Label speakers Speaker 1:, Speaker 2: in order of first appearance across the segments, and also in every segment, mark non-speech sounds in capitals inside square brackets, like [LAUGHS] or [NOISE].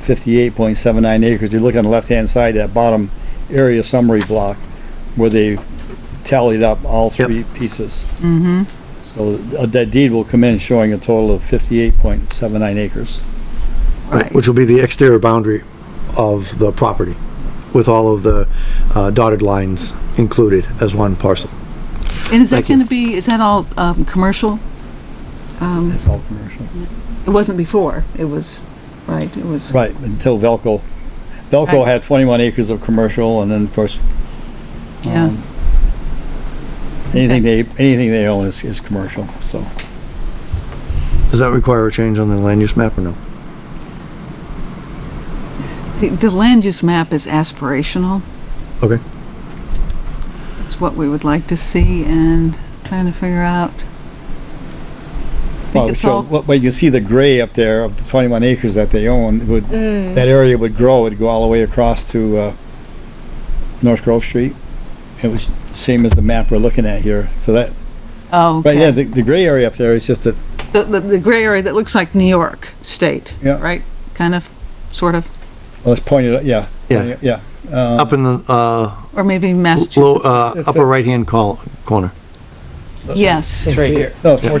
Speaker 1: fifty-eight point seven nine acres. You look on the left-hand side, that bottom area summary block, where they've tallied up all
Speaker 2: Yep.
Speaker 1: three pieces. Mm-hmm. So uh, that deed will come in showing a total of fifty-eight point seven nine acres.
Speaker 3: Right.
Speaker 2: Which will be the exterior boundary of the property with all of the uh, dotted lines included as one parcel.
Speaker 3: And is that
Speaker 2: Thank you.
Speaker 3: going to be, is that all um, commercial? Um,
Speaker 1: That's all commercial.
Speaker 3: It wasn't before, it was, right, it was,
Speaker 1: Right, until Velco. Velco
Speaker 3: Right.
Speaker 1: had twenty-one acres of commercial and then of course.
Speaker 3: Yeah.
Speaker 1: um, Anything they, anything they own is, is commercial, so.
Speaker 2: Does that require a change on the land use map or no?
Speaker 3: the- the land use map is aspirational.
Speaker 2: Okay.
Speaker 3: It's what we would like to see and trying to figure out. I
Speaker 1: Well,
Speaker 3: think it's
Speaker 1: so
Speaker 3: all,
Speaker 1: what- But you see the gray up there of the twenty-one acres that they own, would,
Speaker 3: Mm.
Speaker 1: that area would grow, it'd go all the way across to, uh, North Grove Street. It was same as the map we're looking at here, so that,
Speaker 3: oh,
Speaker 1: but yeah,
Speaker 3: okay.
Speaker 1: the, the gray area up there is just that,
Speaker 3: The, the- the gray area that looks like New York State,
Speaker 1: Yeah.
Speaker 3: right? Kind of, sort of,
Speaker 1: well, it's pointed, out- yeah.
Speaker 2: Yeah.
Speaker 1: Yeah,
Speaker 2: Up in the, uh,
Speaker 3: or maybe
Speaker 2: low,
Speaker 3: Massachusetts.
Speaker 2: uh,
Speaker 1: It's a-
Speaker 2: upper right-hand col- corner.
Speaker 3: Yes.
Speaker 4: It's right here.
Speaker 1: no, it's more,
Speaker 4: I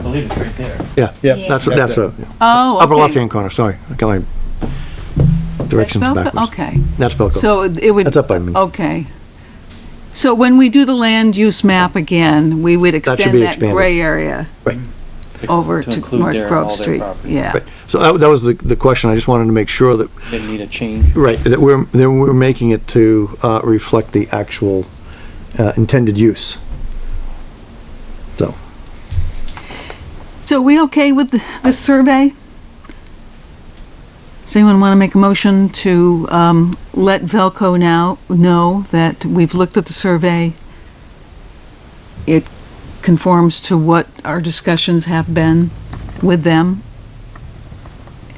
Speaker 4: believe it's right there.
Speaker 2: Yeah,
Speaker 1: yeah.
Speaker 2: that's, what- that's,
Speaker 1: it.
Speaker 2: what-
Speaker 3: Oh,
Speaker 2: upper
Speaker 3: okay.
Speaker 2: left-hand corner, sorry. I got my directions
Speaker 3: Velco-
Speaker 2: backwards.
Speaker 3: Okay.
Speaker 2: That's Velco.
Speaker 3: So Oh. it would.
Speaker 2: That's up by me.
Speaker 3: Okay. So when we do the land use map again, we would
Speaker 2: should
Speaker 3: extend
Speaker 2: be
Speaker 3: that
Speaker 2: expanded.
Speaker 3: gray area
Speaker 2: Right.
Speaker 3: over
Speaker 4: To
Speaker 3: to
Speaker 4: include
Speaker 3: North
Speaker 4: their-
Speaker 3: Grove
Speaker 4: all their
Speaker 3: Street.
Speaker 4: property.
Speaker 3: Yeah.
Speaker 2: Right. So that, that was the, the question. I just wanted to make sure that
Speaker 4: Didn't need a change.
Speaker 2: Right, that we're, that we're making it to uh, reflect the actual uh, intended use. So,
Speaker 3: So we okay with th- this survey? Does anyone want to make a motion to um, let Velco now know that we've looked at the survey? It conforms to what our discussions have been with them?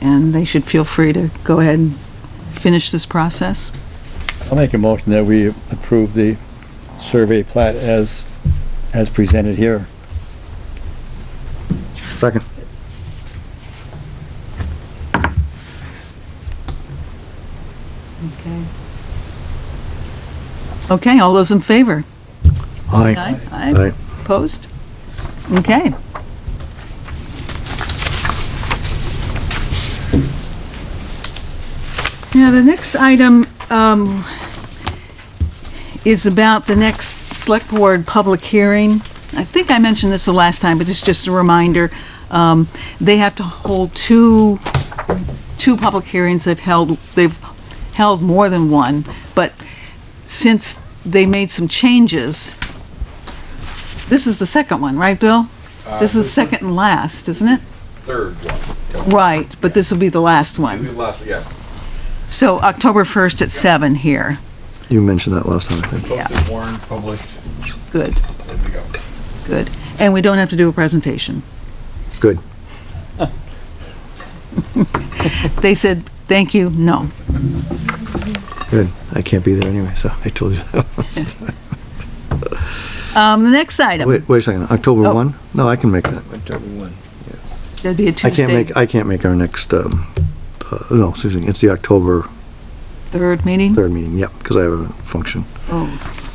Speaker 3: And they should feel free to go ahead and finish this process?
Speaker 1: I'll make a motion that we approve the survey plat as, as presented here.
Speaker 2: second.
Speaker 3: Okay. Okay, all those in favor?
Speaker 2: Aye.
Speaker 3: Aye.
Speaker 2: Aye.
Speaker 3: Opposed? Okay. Now, the next item um, is about the next Select Board public hearing. I think I mentioned this the last time, but it's just a reminder. Um, They have to hold two, two public hearings. They've held, they've held more than one, but since they made some changes, this is the second one, right, Bill? This is the second and last, isn't it?
Speaker 5: Uh, third one.
Speaker 3: Right, but this will be the last
Speaker 5: Maybe
Speaker 3: one.
Speaker 5: the last, yes.
Speaker 3: So October 1st at 7 here.
Speaker 2: You mentioned that last time, I think.
Speaker 3: Yeah.
Speaker 5: Posted, warned, published,
Speaker 3: Good,
Speaker 5: there we go.
Speaker 3: good. And we don't have to do a presentation.
Speaker 2: Good.
Speaker 3: They said, "Thank you, no."
Speaker 2: Good. I can't be there anyway, so I told you
Speaker 3: [LAUGHS]
Speaker 2: that.
Speaker 3: Um, the next item,
Speaker 2: Wait, wait a second. October
Speaker 3: Oh.
Speaker 2: 1? No, I can make that.
Speaker 3: that'd be a
Speaker 2: I can't
Speaker 3: Tuesday,
Speaker 2: make, I can't make our next, um, uh, no, excuse me, it's the October
Speaker 3: 3rd meeting?
Speaker 2: 3rd meeting, yep, because I have a function.
Speaker 3: Oh,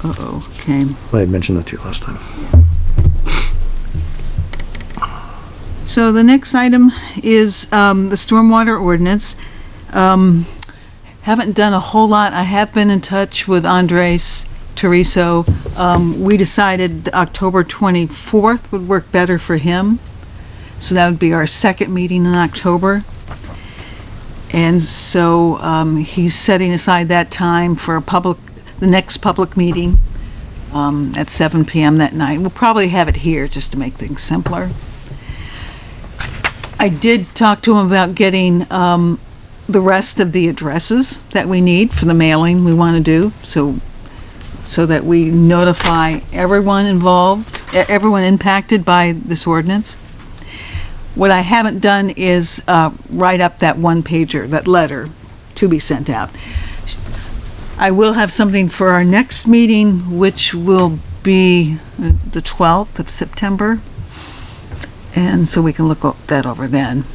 Speaker 3: uh-oh, okay.
Speaker 2: I had mentioned that to you last time.
Speaker 3: So the next item is um, the stormwater ordinance. Um, Haven't done a whole lot. I have been in touch with Andres Teriso. Um, We decided October 24th would work better for him. So that would be our second meeting in October. And so um, he's setting aside that time for a public, the next public meeting um, at 7 PM that night. We'll probably have it here just to make things simpler. I did talk to him about getting um, the rest of the addresses that we need for the mailing we want to do, so, so that we notify everyone involved, e- everyone impacted by this ordinance. What I haven't done is uh, write up that one pager, that letter to be sent out. I will have something for our next meeting, which will be uh, the 12th of September. And so we can look o- that over then.